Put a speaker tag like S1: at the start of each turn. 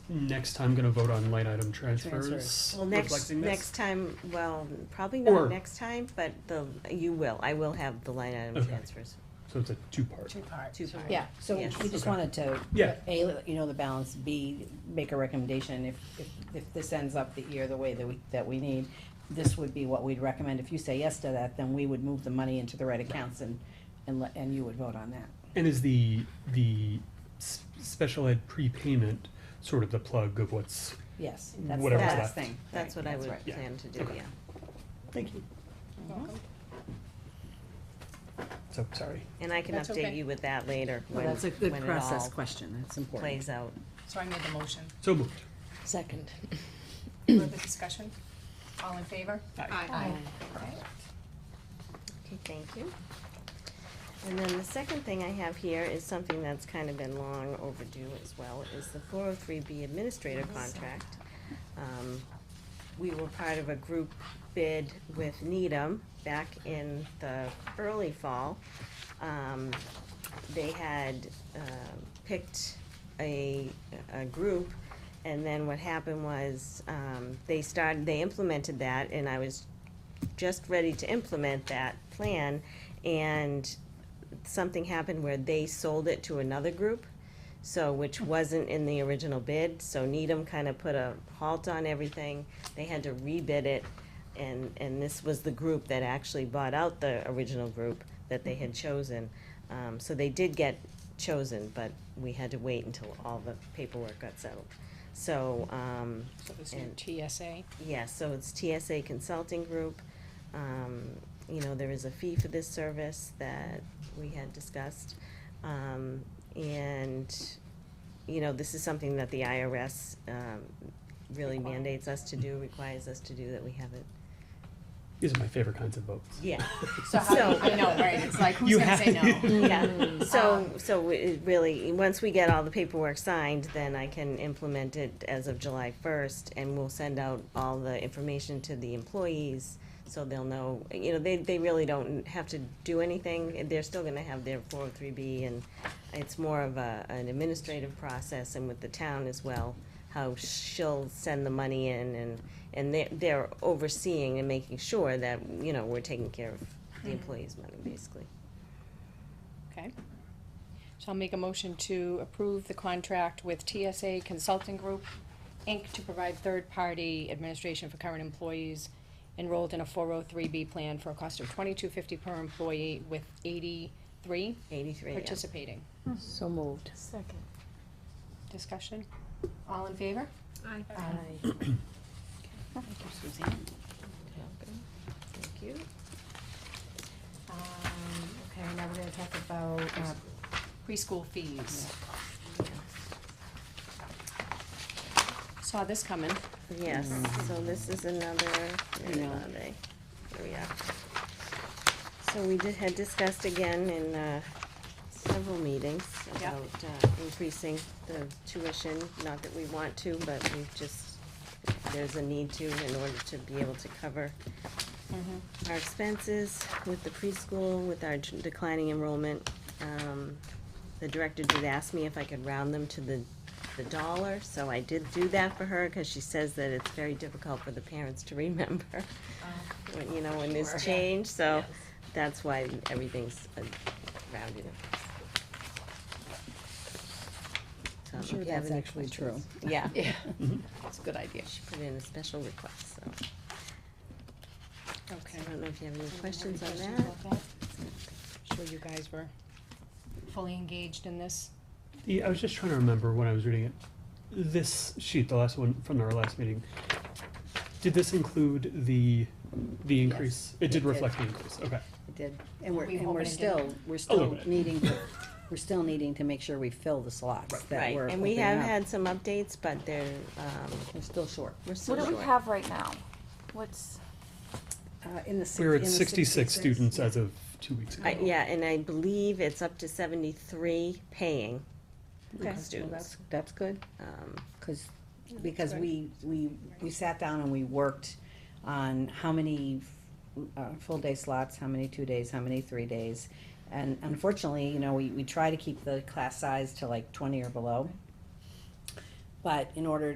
S1: next time gonna vote on line item transfers,
S2: Transfers.
S3: Well, next,
S1: reflecting this?
S3: next time, well, probably
S1: Or-
S3: not next time, but the, you will, I will have the line item
S1: Okay.
S3: transfers.
S1: So it's a two-part.
S2: Two parts.
S3: Two parts.
S2: Yeah, so we
S3: Yes.
S2: just
S1: Okay.
S2: wanted to,
S1: Yeah.
S2: A, let you know the balance, B, make a recommendation, if, if, if this ends up the year the way that we, that we need, this would be what we'd recommend, if you say yes to that, then we would move the money into the right accounts and, and let, and you would vote on that.
S1: And is the, the s- special ed prepayment sort of the plug of what's,
S2: Yes, that's the
S1: Whatever's
S2: last
S1: left.
S2: thing.
S3: That's
S2: Right,
S3: what I would
S2: right.
S1: Yeah.
S3: plan to do,
S1: Okay.
S3: yeah.
S1: thank you, so, sorry.
S3: And I can
S4: That's
S3: update
S4: okay.
S3: you with that later,
S2: Well,
S3: when,
S2: that's a good
S3: when it
S2: process
S3: all
S2: question, that's important.
S3: plays out.
S4: So I made the motion.
S1: So moved.
S5: Second.
S4: Further discussion? All in favor?
S5: Aye.
S4: Okay.
S3: Okay, thank you. And then the second thing I have here is something that's kind of been long overdue as well, is the four oh three B administrator contract. Um, We were part of a group bid with Needham back in the early fall. Um, They had, um picked a, a group, and then what happened was, um, they started, they implemented that, and I was just ready to implement that plan, and something happened where they sold it to another group, so, which wasn't in the original bid, so Needham kind of put a halt on everything, they had to rebid it, and, and this was the group that actually bought out the original group that they had chosen. Um, so they did get chosen, but we had to wait until all the paperwork got settled. So, um,
S4: So this is
S3: And-
S4: TSA.
S3: yeah, so it's TSA Consulting Group. Um, you know, there is a fee for this service that we had discussed. Um, and, you know, this is something that the IRS, um, really mandates us to do, requires us to do that we haven't.
S1: These are my favorite kinds of votes.
S3: Yeah,
S4: So how, do
S3: So-
S4: you- I know, right, it's like, who's
S1: You
S4: gonna say
S1: have-
S4: no?
S3: yeah. So, so it really, once we get all the paperwork signed, then I can implement it as of July first, and we'll send out all the information to the employees, so they'll know, you know, they, they really don't have to do anything, they're still gonna have their four oh three B, and it's more of a, an administrative process, and with the town as well, how she'll send the money in, and, and they're, they're overseeing and making sure that, you know, we're taking care of the employees' money, basically.
S4: Okay. So I'll make a motion to approve the contract with TSA Consulting Group, Inc. to provide third-party administration for current employees enrolled in a four oh three B plan for a cost of twenty-two fifty per employee with eighty-three
S3: Eighty-three, yeah.
S4: participating.
S5: So moved.
S6: Second.
S4: Discussion? All in favor?
S6: Aye.
S4: Thank you, Suzanne.
S3: Thank you.
S4: Um, okay, now we're gonna talk about uh, preschool fees. Saw this coming.
S3: Yes, so this is another, where
S2: No.
S3: are they? Here we are. So we did, had discussed again in, uh, several meetings
S4: Yeah.
S3: about, uh, increasing the tuition, not that we want to, but we just, there's a need to in order to be able to cover our expenses with the preschool, with our declining enrollment. Um, the director did ask me if I could round them to the, the dollar, so I did do that for her, cause she says that it's very difficult for the parents to remember. When, you know, when
S4: Sure.
S3: there's change, so that's why everything's uh, rounded. So,
S2: I'm
S3: if
S2: sure
S3: you have
S2: that's
S3: any
S2: actually true.
S3: questions- Yeah,
S4: Yeah,
S1: Mm-hmm.
S4: that's a good idea.
S3: she put in a special request, so,
S4: Okay.
S3: I don't know if you have any questions on
S4: Questions
S3: that?
S4: about that? Sure you guys were fully engaged in this.
S1: The, I was just trying to remember when I was reading it. This sheet, the last one from our last meeting, did this include the, the increase? It did
S2: did.
S1: reflect the increase, okay.
S2: It did, and we're,
S4: We
S2: and
S4: hope
S2: we're
S4: it didn't.
S2: still, we're
S1: little
S2: still
S1: bit.
S2: needing, to- we're still needing to make sure we fill the slots that
S3: Right,
S2: we're
S3: and we
S2: opening
S3: have
S2: up.
S3: had some updates, but they're, um,
S2: We're still short.
S3: we're still
S6: What do we
S3: short.
S6: have right now? What's,
S2: Uh, in the six-
S1: We were
S2: in
S1: at
S2: the
S1: sixty-six students as of two weeks ago.
S3: I- Yeah, and I believe it's up to seventy-three paying
S2: Okay, well,
S3: students.
S2: that's, that's good,
S3: Um,
S2: cause, because we, we, we sat down and we worked on how many, uh, full-day slots, how many two days, how many three days. And unfortunately, you know, we, we try to keep the class size to like twenty or below. But in order